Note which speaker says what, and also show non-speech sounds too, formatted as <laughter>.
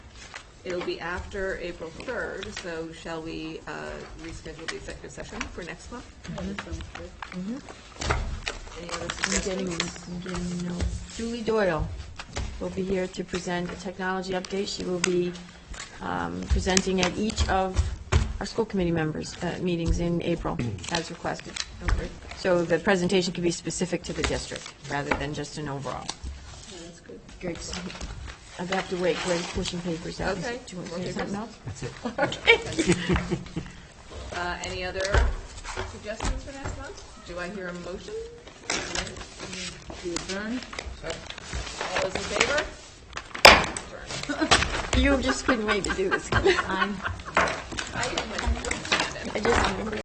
Speaker 1: It'll be after April 3rd, so shall we uh, reschedule the executive session for next month? Mm-hmm. Any other
Speaker 2: I'm getting,
Speaker 1: suggestions?
Speaker 2: I'm getting notes. Julie Doyle will be here to present a technology update. She will be um, presenting at each of our school committee members' uh, meetings in April, as requested.
Speaker 1: Okay.
Speaker 2: So the presentation can be specific to the district, rather than just an overall. Greg's, I'd have to wait, Greg's pushing papers out.
Speaker 1: Okay.
Speaker 2: Do you want to say something else?
Speaker 1: Uh, Any other suggestions for next month? Do I hear a motion? To adjourn? All those in favor? <laughs>
Speaker 2: You just couldn't wait to do this. I'm-
Speaker 1: I am with-
Speaker 2: I just remembered.